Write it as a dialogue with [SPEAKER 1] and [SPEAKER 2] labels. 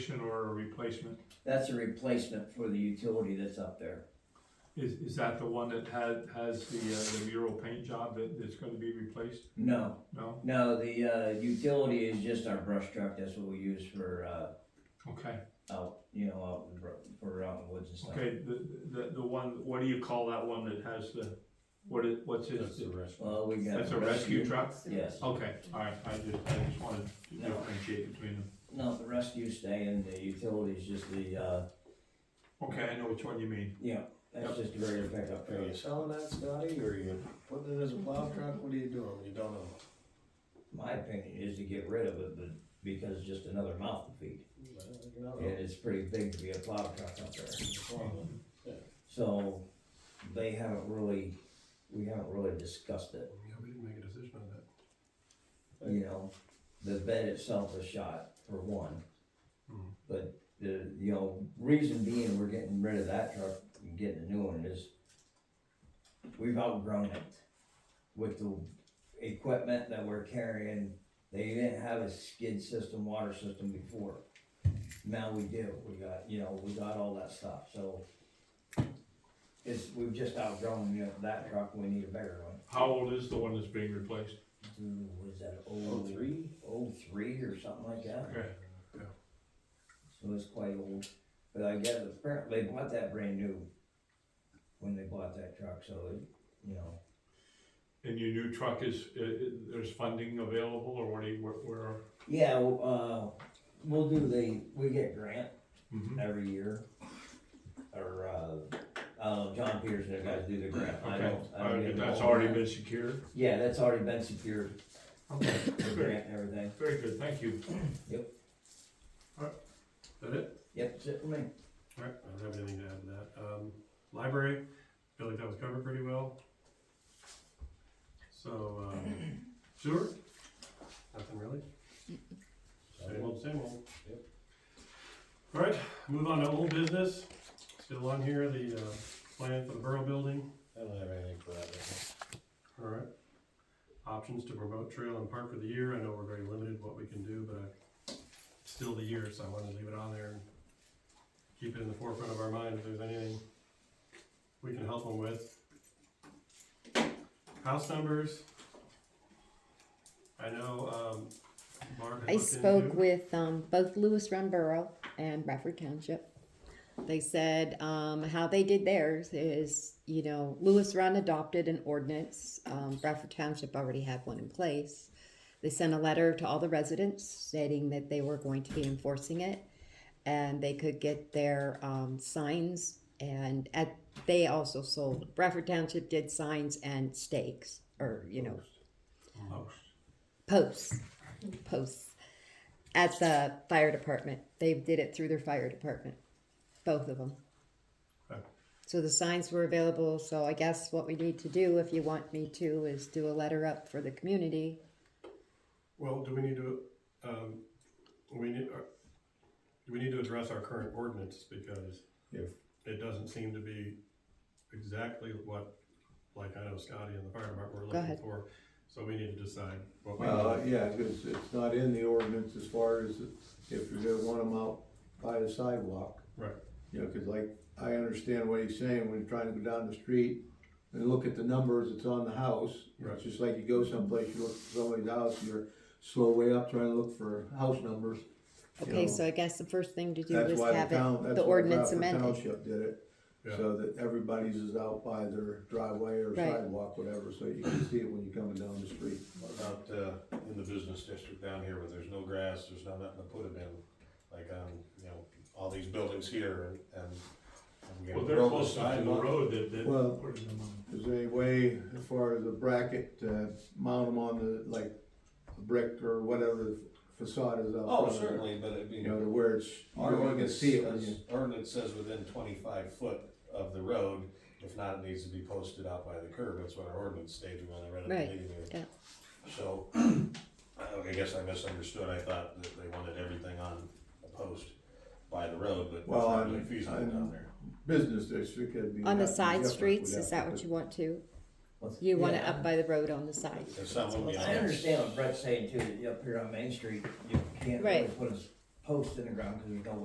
[SPEAKER 1] or a replacement.
[SPEAKER 2] That's a replacement for the utility that's up there.
[SPEAKER 1] Is, is that the one that had, has the, uh, the mural paint job that, that's gonna be replaced?
[SPEAKER 2] No,
[SPEAKER 1] No?
[SPEAKER 2] no, the, uh, utility is just our brush truck, that's what we use for, uh,
[SPEAKER 1] Okay,
[SPEAKER 2] out, you know, out in the, bro- for out in the woods and stuff.
[SPEAKER 1] okay, the, the, the one, what do you call that one that has the, what is, what's
[SPEAKER 3] That's
[SPEAKER 1] his?
[SPEAKER 3] the restaurant.
[SPEAKER 2] Well, we got.
[SPEAKER 1] That's a rescue truck? Oh.
[SPEAKER 2] Yes,
[SPEAKER 1] Okay, alright, I just, I just wanted to
[SPEAKER 2] No.
[SPEAKER 1] differentiate between them.
[SPEAKER 2] no, the rescue stay and the utility is just the, uh,
[SPEAKER 1] Okay, I know which one you mean.
[SPEAKER 2] you know, that's just a regular pickup
[SPEAKER 3] Are
[SPEAKER 2] truck.
[SPEAKER 3] you selling that, Scotty, or are you putting it as a plow truck? What are you doing? You don't know.
[SPEAKER 2] My opinion is to get rid of it, but because it's just another mouth to feed.
[SPEAKER 3] Well, you
[SPEAKER 1] Oh.
[SPEAKER 3] don't know.
[SPEAKER 2] And it's pretty big to be a plow truck up there.
[SPEAKER 3] Well,
[SPEAKER 2] So they haven't really, we haven't really discussed it.
[SPEAKER 4] Yeah, we didn't make a decision on that.
[SPEAKER 2] you know, the bed itself was shot for one.
[SPEAKER 4] Hmm.
[SPEAKER 2] But the, you know, reason being we're getting rid of that truck and getting a new one is we've outgrown it with the equipment that we're carrying. They didn't have a skid system, water system before. Now we do. We got, you know, we got all that stuff, so it's, we've just outgrown, you know, that truck. We need a bigger one.
[SPEAKER 1] How old is the one that's being replaced?
[SPEAKER 2] Dude, was that
[SPEAKER 3] Oh,
[SPEAKER 2] old?
[SPEAKER 3] three?
[SPEAKER 2] oh three or something like that.
[SPEAKER 1] Okay,
[SPEAKER 2] So it's quite old. But I guess apparently they bought that brand new when they bought that truck, so it, you know.
[SPEAKER 1] and your new truck is, uh, uh, there's funding available or what do you, where, where?
[SPEAKER 2] Yeah, well, uh, we'll do the, we get grant
[SPEAKER 1] Mhm.
[SPEAKER 2] every year. Or, uh, uh, John Peterson, they guys do the grant. I
[SPEAKER 1] Okay,
[SPEAKER 2] don't- I don't
[SPEAKER 1] Uh,
[SPEAKER 2] get
[SPEAKER 1] that's
[SPEAKER 2] involved
[SPEAKER 1] already
[SPEAKER 2] in that.
[SPEAKER 1] been secured?
[SPEAKER 2] Yeah, that's already been secured,
[SPEAKER 1] Okay,
[SPEAKER 2] the
[SPEAKER 1] good.
[SPEAKER 2] grant and everything.
[SPEAKER 1] Very good, thank you.
[SPEAKER 4] That it?
[SPEAKER 2] Yep, that's it for me.
[SPEAKER 4] Alright, I don't have anything to add to that. Um, library, feel like that was covered pretty well. So, um, sewer? Nothing really? Same old, same old.
[SPEAKER 3] Yep.
[SPEAKER 4] Alright, move on to old business. Still on here, the, uh, plan for the borough building.
[SPEAKER 3] I don't have anything for that. right
[SPEAKER 4] Alright. Options to promote trail and park for the year. I know we're very limited what we can do, but I- it's still the year, so I wanted to leave it on there and keep it in the forefront of our mind if there's anything we can help them with. House numbers. I know, um, Barb had
[SPEAKER 5] I
[SPEAKER 4] looked
[SPEAKER 5] spoke
[SPEAKER 4] into-
[SPEAKER 5] with um, both Lewis Run Borough and Bradford Township. They said um, how they did theirs is, you know, Lewis Run adopted an ordinance. Um, Bradford Township already had one in place. They sent a letter to all the residents stating that they were going to be enforcing it and they could get their um, signs. And at, they also sold, Bradford Township did signs and stakes or, you know,
[SPEAKER 4] Oh,
[SPEAKER 5] posts, posts at the fire department. They did it through their fire department, both of them.
[SPEAKER 4] Okay.
[SPEAKER 5] So the signs were available. So I guess what we need to do, if you want me to, is do a letter up for the community.
[SPEAKER 4] Well, do we need to, um, we need, uh, do we need to address our current ordinance, because
[SPEAKER 3] Yes.
[SPEAKER 4] it doesn't seem to be exactly what, like I know Scotty and the fire department were looking
[SPEAKER 5] ahead.
[SPEAKER 4] for, so we need to decide what we,
[SPEAKER 6] Well, uh, yeah, because it's not in the ordinance as far as if you're gonna want them out by the sidewalk.
[SPEAKER 4] right,
[SPEAKER 6] You know, because like, I understand what he's saying, when you're trying to go down the street and look at the numbers that's on the house.
[SPEAKER 4] Right.
[SPEAKER 6] It's just like you go someplace, you look at somebody's house, you're slow way up trying to look for house numbers. you
[SPEAKER 5] Okay,
[SPEAKER 6] know.
[SPEAKER 5] so I guess the first thing to do
[SPEAKER 6] That's
[SPEAKER 5] is
[SPEAKER 6] why
[SPEAKER 5] have
[SPEAKER 6] the town,
[SPEAKER 5] it, the
[SPEAKER 6] that's why
[SPEAKER 5] ordinance
[SPEAKER 6] Bradford
[SPEAKER 5] amended.
[SPEAKER 6] Township did it,
[SPEAKER 4] yeah.
[SPEAKER 6] so that everybody's is out by their driveway or
[SPEAKER 5] Right.
[SPEAKER 6] sidewalk, whatever, so you can see it when you're coming down the street.
[SPEAKER 3] What about, uh, in the business district down here where there's no grass, there's not nothing to put it in? Like, um, you know, all these buildings here and, and. and we
[SPEAKER 1] Well,
[SPEAKER 3] got
[SPEAKER 1] they're
[SPEAKER 3] road
[SPEAKER 1] close enough to the
[SPEAKER 3] sidewalk.
[SPEAKER 1] road that, that.
[SPEAKER 6] Well-
[SPEAKER 1] Where's the money?
[SPEAKER 6] Is there any way, as far as a bracket, uh, mount them on the, like, a brick or whatever facade is out?
[SPEAKER 3] Oh,
[SPEAKER 6] front of it?
[SPEAKER 3] certainly, but it'd be.
[SPEAKER 6] You know, to where it's,
[SPEAKER 3] Our
[SPEAKER 6] you can
[SPEAKER 3] ordinance
[SPEAKER 6] see it when
[SPEAKER 3] says-
[SPEAKER 6] you,
[SPEAKER 3] Ordinance says within twenty-five foot of the road, if not, it needs to be posted out by the curb, that's what our ordinance stated when I read it. at
[SPEAKER 5] Right,
[SPEAKER 3] the beginning.
[SPEAKER 5] yeah.
[SPEAKER 3] So, I I guess I misunderstood, I thought that they wanted everything on a post by the road, but it's
[SPEAKER 6] Well,
[SPEAKER 3] not
[SPEAKER 6] I'm-
[SPEAKER 3] really feasible
[SPEAKER 6] I'm-
[SPEAKER 3] down there.
[SPEAKER 6] business district, it'd be.
[SPEAKER 5] On the
[SPEAKER 6] that'd be
[SPEAKER 5] side
[SPEAKER 6] different.
[SPEAKER 5] streets,
[SPEAKER 6] We'd
[SPEAKER 5] is
[SPEAKER 6] have
[SPEAKER 5] that
[SPEAKER 6] to
[SPEAKER 5] what
[SPEAKER 6] put-
[SPEAKER 5] you want to?
[SPEAKER 2] What's-
[SPEAKER 5] You want it
[SPEAKER 2] Yeah.
[SPEAKER 5] up by the road on the side?
[SPEAKER 3] If someone,
[SPEAKER 2] I understand what Brett's saying too, that up here on Main Street, you can't really
[SPEAKER 5] Right.
[SPEAKER 2] put a s- posts in the ground, cause there's no